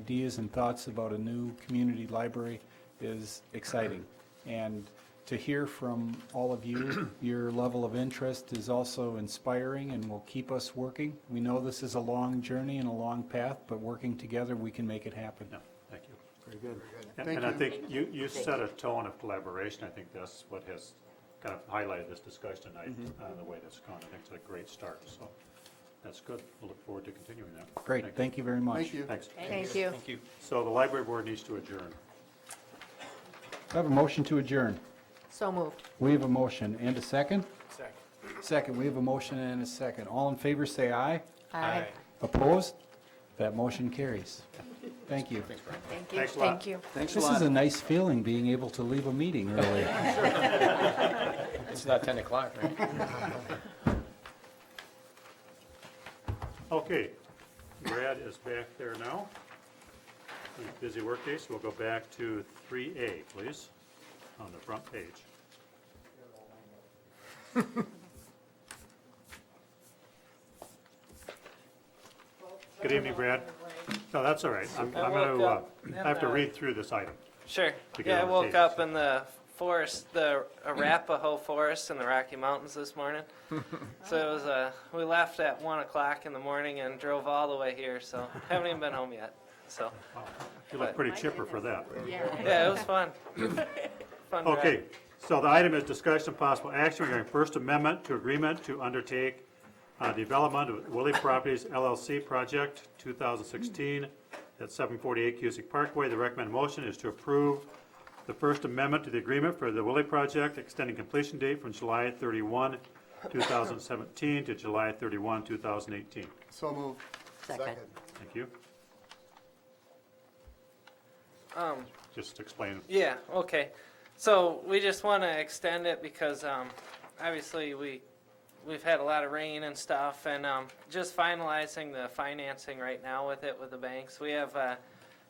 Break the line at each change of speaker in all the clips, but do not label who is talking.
ideas and thoughts about a new community library is exciting. And to hear from all of you, your level of interest is also inspiring and will keep us working. We know this is a long journey and a long path, but working together, we can make it happen.
No, thank you.
Very
And-
good. Thank
And I
you.
think you, you set a tone of collaboration. I think that's what has kind of highlighted this discussion tonight,
Mm-hmm.
uh, the way that's gone. I think it's a great start, so that's good. We'll look forward to continuing that.
Great, thank you very much.
Thank you.
Thanks.
Thank you.
So the library board needs to adjourn.
I have a motion to adjourn.
So moved.
We have a motion and a second? Second. Second, we have a motion and a second. All in favor, say aye.
Aye.
Opposed? That motion carries. Thank you.
Thank you.
Thanks a lot.
Thank you.
Thanks a
This is
lot.
a nice feeling, being able to leave a meeting early.
It's not 10 o'clock, right?
Okay, Brad is back there now. Busy workday, so we'll go back to 3A, please, on the front page. Good evening, Brad. No, that's all right. I'm
I
I'm gonna,
woke
uh,
up
I have to
and, uh,
read through this item.
Sure.
to get
Yeah, I
on the
woke
tape.
up in the forest, the Arapaho Forest in the Rocky Mountains this morning. so it was, uh, we left at 1 o'clock in the morning and drove all the way here, so haven't even been home yet. So,
You look
But-
pretty chipper for that.
yeah, it was fun. fun ride.
Okay, so the item is discussion of possible action regarding First Amendment to agreement to undertake uh, development of Willie Properties LLC project 2016 at 748 Cusick Parkway. The recommended motion is to approve the First Amendment to the agreement for the Willie project, extending completion date from July 31, 2017 to July 31, 2018.
So moved.
Second.
Thank you.
Um,
Just explain.
Yeah, okay. So we just want to extend it because um, obviously we, we've had a lot of rain and stuff and um, just finalizing the financing right now with it with the banks. We have uh,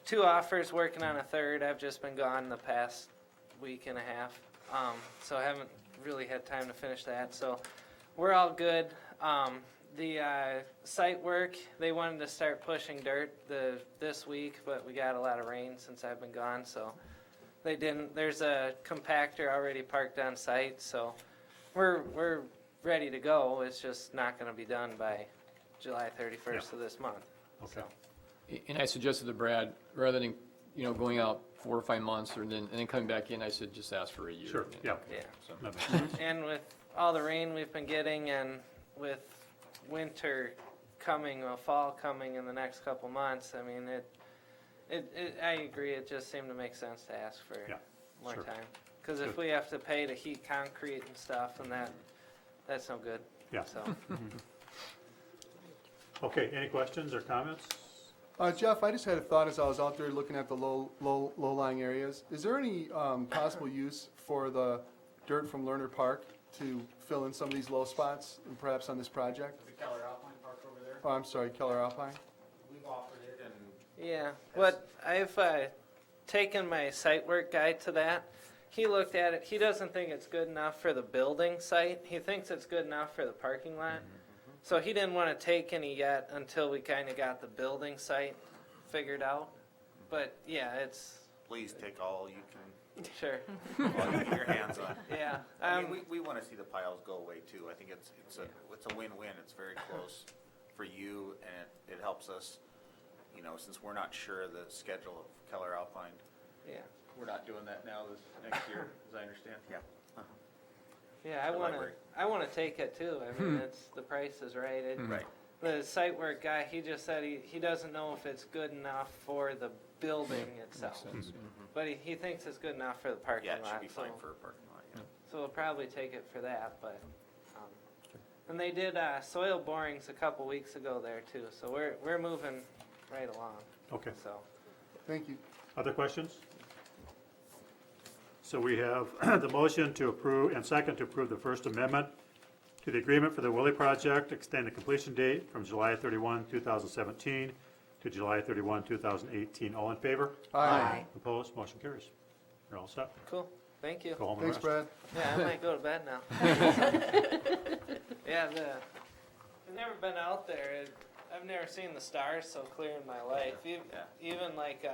two offers working on a third. I've just been gone the past week and a half. Um, so I haven't really had time to finish that. So we're all good. Um, the uh, site work, they wanted to start pushing dirt the, this week, but we got a lot of rain since I've been gone. So they didn't. There's a compactor already parked on site, so we're, we're ready to go. It's just not gonna be done by July thirty-first of this month.
Okay.
And I suggested to Brad, rather than, you know, going out four or five months or then, and then coming back in, I said, just ask for a year.
Sure, yeah.
Yeah.
So-
No,
And with all the rain we've been getting and with winter coming, or fall coming in the next couple months, I mean, it, it, it, I agree, it just seemed to make sense to ask for
Yeah,
more
sure.
time. Cause if
Good.
we have to pay to heat concrete and stuff and that, that's no good,
Yeah.
so.
Okay, any questions or comments?
Uh, Jeff, I just had a thought as I was out there looking at the low, low, low-lying areas. Is there any, um, possible use for the dirt from Lerner Park to fill in some of these low spots, and perhaps on this project?
The Keller Alpine Park over there,
Oh, I'm sorry, Keller Alpine?
we've offered it and
Yeah, what I've uh, taken my site work guy to that. He looked at it. He doesn't think it's good enough for the building site. He thinks it's good enough for the parking lot. So he didn't want to take any yet until we kind of got the building site figured out. But yeah, it's
please take all you can,
sure.
all you can get your hands on.
Yeah,
I mean,
um,
we, we wanna see the piles go away too, I think it's, it's a, it's a win-win, it's very close for you and it, it helps us, you know, since we're not sure of the schedule of Keller Alpine.
yeah,
We're not doing that now this, next year, as I understand. Yeah.
yeah. I
The
want to.
library.
I want to take it too. I mean, it's the price is right. It,
Right.
The site work guy, he just said he, he doesn't know if it's good enough for the building itself. But he, he thinks it's good enough for the parking
Mm-hmm. Yeah, it should
lot,
be
so,
fine for a parking lot, yeah.
so we'll probably take it for that, but, um, and they did, uh, soil borings a couple weeks ago there too, so we're, we're moving right along,
Okay.
so.
Thank you.
Other questions? So we have the motion to approve and second to approve the First Amendment to the agreement for the Willie Project, extend the completion date from July 31, 2017 to July 31, 2018. All in favor?
Aye.
Opposed? Motion carries. You're all set.
Cool, thank you.
Go home and
Thanks,
rest.
Brad.
Yeah, I might go to bed now. Yeah, the, I've never been out there. It- I've never seen the stars so clear in my life. Ev-
Yeah.
Even like, uh,